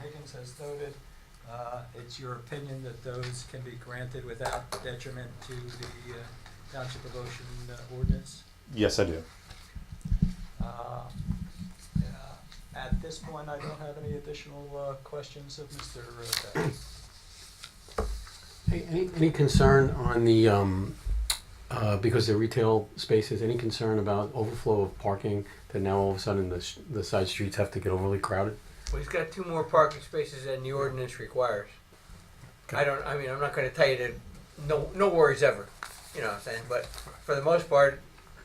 Collins has noted, uh, it's your opinion that those can be granted without detriment to the uh, Township of Ocean uh, ordinance. Yes, I do. Uh, uh, At this point, I don't have any additional uh, questions of uh, Mr. Beck. Hey, Any, any concern on the, um, uh, because they're retail spaces, any concern about overflow of parking that now all of a sudden the, s- the side streets have to get overly crowded? Well, he's got two more parking spaces than the ordinance requires. I don't, I mean, I'm not gonna tell you that, no, no worries ever, you know what I'm saying, but for the most part,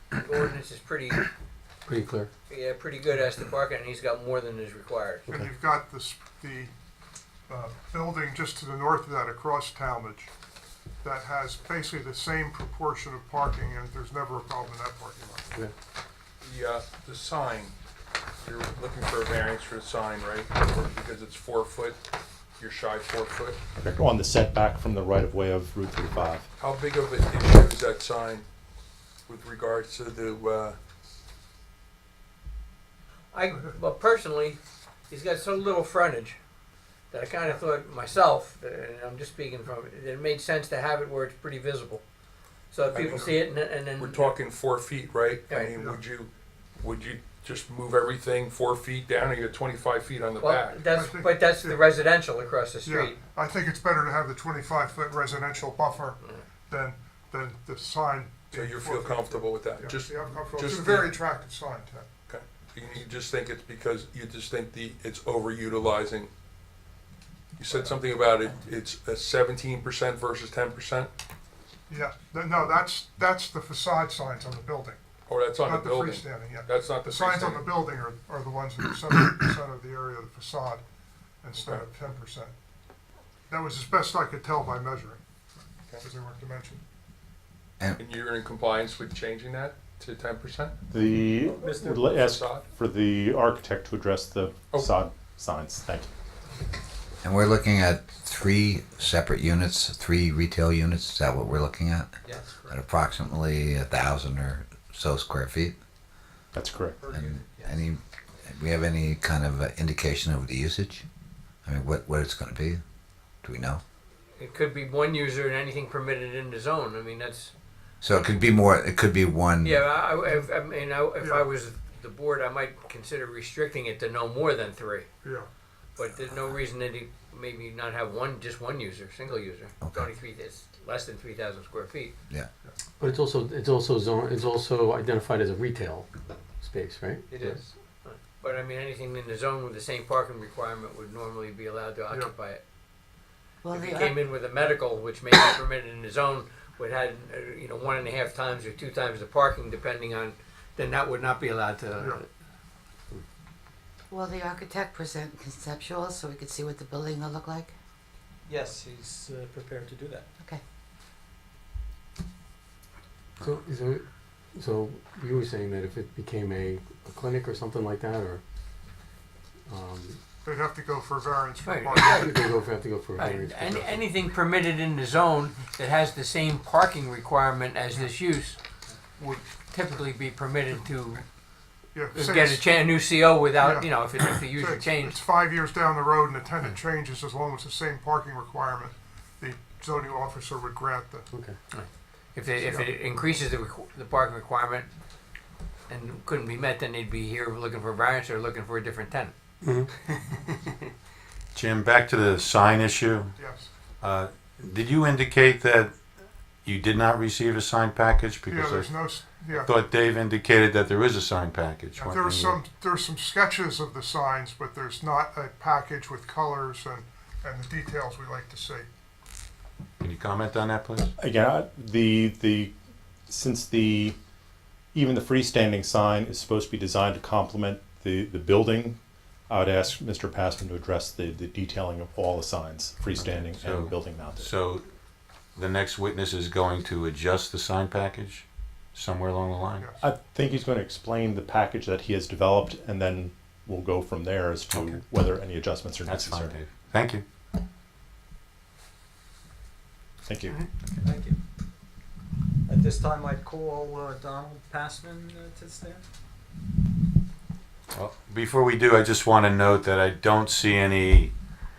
the ordinance is pretty, Pretty clear? yeah, pretty good as to parking, and he's got more than is required. And Okay. you've got this, the uh, building just to the north of that across Talmadge that has basically the same proportion of parking and there's never a problem in that parking lot. Okay. The, uh, the sign, you're looking for a variance for the sign, right? Or Because it's four foot, you're shy four foot. On the setback from the right of way of Route 35. How big of an issue is that sign with regards to the, uh, I, well, personally, he's got so little frontage that I kinda thought myself, and I'm just speaking from, that it made sense to have it where it's pretty visible. So that people see it and, then- and then. we're talking four feet, right? I Right. mean, would you, would you just move everything four feet down or you're twenty-five feet on the Well, back? that's, but that's the residential across the Yeah, street. I think it's better to have the twenty-five foot residential buffer than, than the sign. So being you four feel feet. comfortable with that? Yeah, Just, yeah, I'm comfortable. It's just a the- very attractive sign, Ted. okay. You you just think it's because, you just think the, it's overutilizing? You said something about it, it's a seventeen percent versus ten percent? Yeah, th- no, that's, that's the facade signs on the building, Oh, that's on the not the building. freestanding, yeah. That's not the The signs on the freestanding. building are, are the ones that are seventy percent of the area of the facade instead of ten percent. That was as best I could tell by measuring, because they weren't dimensioned. And you're in compliance with changing that to ten percent? The, Mr. would li- ask Facade? for the architect to address the Oh. facade signs. Thank you. And we're looking at three separate units, three retail units. Is that what we're looking at? Yes. At approximately a thousand or so square feet. That's correct. And any, we have any kind of uh, indication of the usage? I mean, what what it's going to be? Do we know? It could be one user and anything permitted in the zone. I mean, that's So it could be more. It could be one. yeah. I, I, I mean, I, if I was the board, I might consider restricting it to no more than three. Yeah. But there's no reason that he maybe not have one, just one user, single user. It's Okay. only three. It's less than three thousand square feet. Yeah. But it's also, it's also zone, it's also identified as a retail space, right? It is. But I mean, anything in the zone with the same parking requirement would normally be allowed to occupy it. Well, if he the came in with a medical, which may be permitted in his own, would had uh, you know one and a half times or two times the parking, depending on, then that would not be allowed to. Will the architect present conceptual so we could see what the building will look like? Yes, he's uh, prepared to do that. Okay. So, is there, so you were saying that if it became a a clinic or something like that, or, um, They'd have to go for variance for Right. parking. you could go, have to go for a Right. variance. for Uh, Any, that. anything permitted in the zone that has the same parking requirement as this use would typically be permitted to Yeah, say get a, it's- cha- a new CO without Yeah. you know if, it, if the say user it's- It's changed. five years down the road and the tenant changes, as long as the same parking requirement, the zoning officer would grant the, Okay. If it, if it increases the, requ- the parking requirement and couldn't be met, then they'd be here looking for a variance or looking for a different tenant. Jim, back to the sign issue. yes. Uh, Did you indicate that you did not receive a sign package? Yeah, Because there's I no, s- yeah. thought Dave indicated that there is a sign package. There Why- was some, there's some sketches of the signs, but there's not a package with colors and, and the details we like to see. Can you comment on that, please? Again, I- the, the, since the, even the freestanding sign is supposed to be designed to complement the, the building, I would ask Mr. Passman to address the, the detailing of all the signs, freestanding so- and building mounted. So the next witness is going to adjust the sign package somewhere along the line? Yes. I think he's going to explain the package that he has developed, and then we'll go from there as to Okay. whether any adjustments are That's necessary. fine, Dave. Thank you. Thank you. Thank you. At this time, I'd call uh, Donald Passman uh, to stand. Well, Before we do, I just want to note that I don't see any